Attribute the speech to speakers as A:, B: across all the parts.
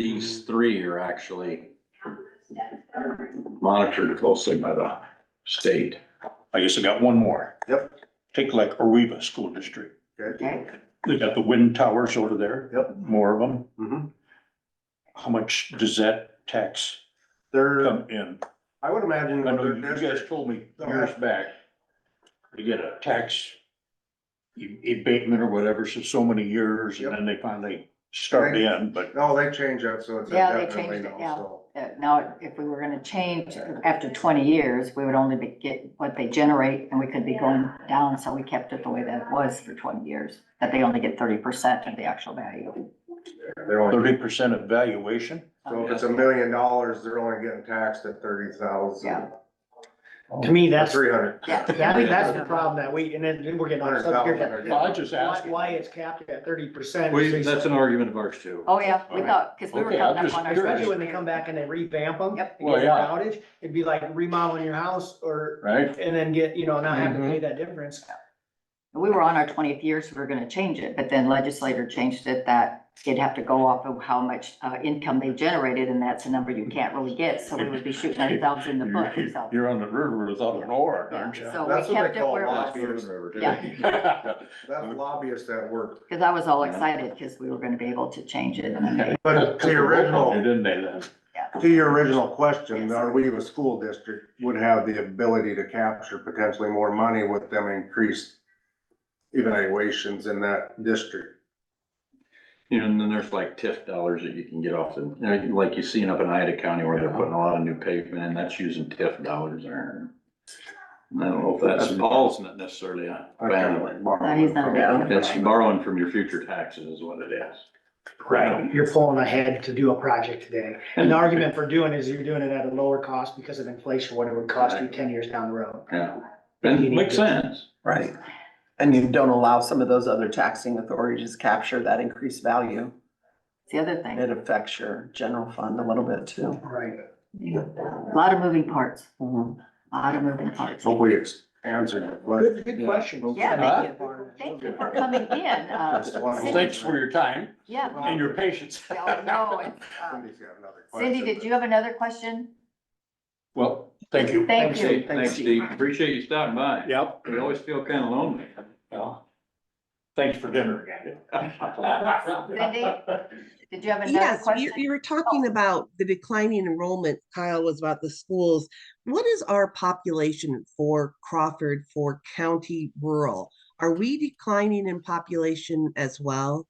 A: These three are actually monitored closely by the state.
B: I guess I got one more.
C: Yep.
B: Take like Arriva School District.
C: Okay.
D: Okay,
B: They got the wind towers over there.
C: Yep.
B: More of them.
C: Mhm.
B: How much does that tax
C: They're,
B: come in?
C: I would imagine.
B: I know
C: other
B: you guys
C: districts-
B: told me years back, you get a tax e- abatement or whatever, so so many years, and then they finally start in, but
C: No, Oh, they changed that, so it's. a
D: Yeah, they
C: definitely
D: changed it,
C: no,
D: yeah.
C: so.
D: uh, now if we were gonna change after twenty years, we would only be, get what they generate and we could be going down, so we kept it the way that it was for twenty years, that they only get thirty percent of the actual value.
C: They're only,
B: thirty percent of valuation.
C: so
D: Oh,
C: if it's a million dollars, they're only getting taxed at thirty thousand,
D: Yeah.
E: To me, that's,
C: three hundred.
D: Yeah.
E: that, that's the problem that we, and then we're getting on subject here,
B: Well, I just
E: that why,
B: asked.
E: why it's capped at thirty percent.
A: We, that's an argument of ours too.
D: Oh, yeah, we thought, cause we were
B: Okay, I'm
D: counting up
B: just
D: on our.
B: curious.
E: Especially when they come back and they revamp them.
D: Yep.
E: And
B: Well,
E: get an
B: yeah.
E: outage, it'd be like remodeling your house or,
B: Right?
E: and then get, you know, not having
D: Mm-hmm.
E: to pay that difference.
D: We were on our twentieth year, so we were gonna change it, but then legislator changed it that it'd have to go off of how much, uh, income they generated, and that's a number you can't really get, so we would be shooting ourselves in the foot, so.
B: You're on the river without an oar,
D: Yeah,
B: aren't you?
D: so
C: That's
D: Oh, we
C: what they
D: kept it
C: call
D: where it
C: lots
D: was,
C: of- That's
B: Mm-hmm.
C: lobbyists that work,
D: cause I was all excited, cause we were gonna be able to change it, and then
C: but to your original,
B: Didn't they then?
C: to your original question, are we a school district would have the ability to capture potentially more money with them increased evaluations in that district?
A: You know, and then there's like TIF dollars that you can get off the, you know, like you seen up in Ida County where they're putting a lot of new pavement and that's using TIF dollars there. And I don't know if that's, Paul's not necessarily a fan of it.
D: uh, he's not a big fan.
A: It's borrowing from your future taxes is what it is.
E: Right. You're pulling ahead to do a project today. And the argument for doing is you're doing it at a lower cost because of inflation, what it would cost you ten years down the road.
A: Yeah, and makes sense.
F: Right. And you don't allow some of those other taxing authorities to capture that increased value.
D: it's the other thing,
F: It affects your general fund a little bit too.
E: Right.
D: a lot of moving parts,
F: Mhm.
D: a lot of moving parts.
C: Hopefully it's answered, your question.
E: Good, good question.
D: Yeah, thank you, thank you for coming in, uh,
C: Just one-
D: Cindy.
B: Thanks for your time
D: yeah.
B: and your patience.
D: Yeah, no, it's, uh,
C: Cindy's got another question.
D: Cindy, did you have another question?
B: Well, thank you.
D: Thank you.
A: Hey, Thanks, Steve. Appreciate you stopping by.
B: Yep.
A: We always feel kind of lonely.
B: Well, Thanks for dinner again.
D: Cindy, did you have another
G: Yes, you,
D: question? Oh.
G: you were talking about the declining enrollment, Kyle was about the schools. What is our population for Crawford for county rural? Are we declining in population as well?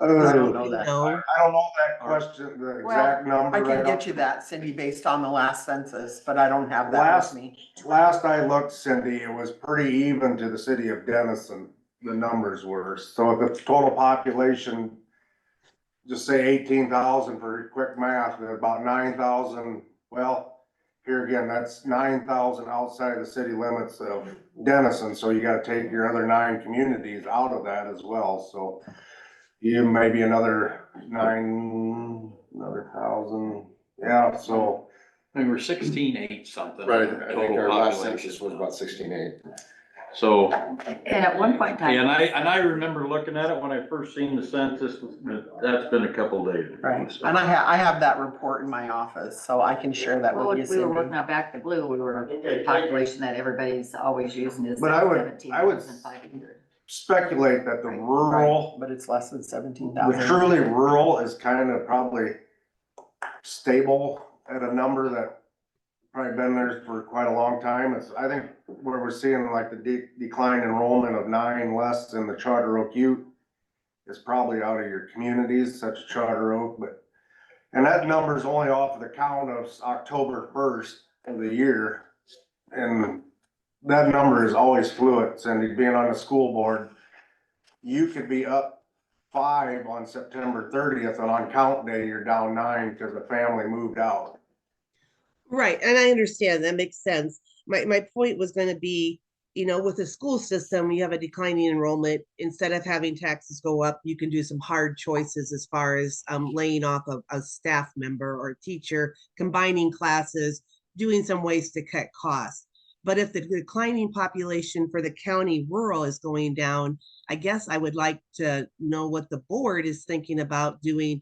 C: Uh,
E: I
C: I
E: don't
C: don't
E: know that.
G: No,
C: know that question, the exact number.
F: I
C: right
F: can
C: off.
F: get you that, Cindy, based on the last census, but I don't have that
C: Last-
F: with me.
C: Last I looked, Cindy, it was pretty even to the city of Denison, the numbers were. So if the total population, just say eighteen thousand for quick math, and about nine thousand, well, here again, that's nine thousand outside the city limits of Denison, so you gotta take your other nine communities out of that as well, so you maybe another nine, another thousand, yeah, so.
A: We were sixteen eight something.
H: Right, I think
A: total
H: our last
A: population.
H: census was about sixteen eight.
A: So,
D: And at one point in
A: yeah, and
D: time,
A: I, and I remember looking at it when I first seen the census, but that's been a couple days. ago,
F: Right.
A: so.
F: And I ha, I have that report in my office, so I can share that
D: well,
F: with you,
D: we were working
F: Cindy.
D: out back the blue, we were, the population that everybody's always using is
C: But I would- I would-
D: 17,500.
C: speculate that the rural,
F: But it's less than seventeen
C: the
F: thousand.
C: truly rural is kind of probably stable at a number that probably been there for quite a long time. It's, I think, where we're seeing like the de- decline enrollment of nine less in the Charter Oak Ute is probably out of your communities such as Charter Oak, but, and that number's only off of the count of October first of the year. And that number is always fluid, Cindy, being on the school board, you could be up five on September thirtieth, and on count day, you're down nine because the family moved out.
G: Right, and I understand, that makes sense. My, my point was gonna be, you know, with the school system, you have a declining enrollment. Instead of having taxes go up, you can do some hard choices as far as um, laying off of a staff member or a teacher, combining classes, doing some ways to cut costs. But if the declining population for the county rural is going down, I guess I would like to know what the board is thinking about doing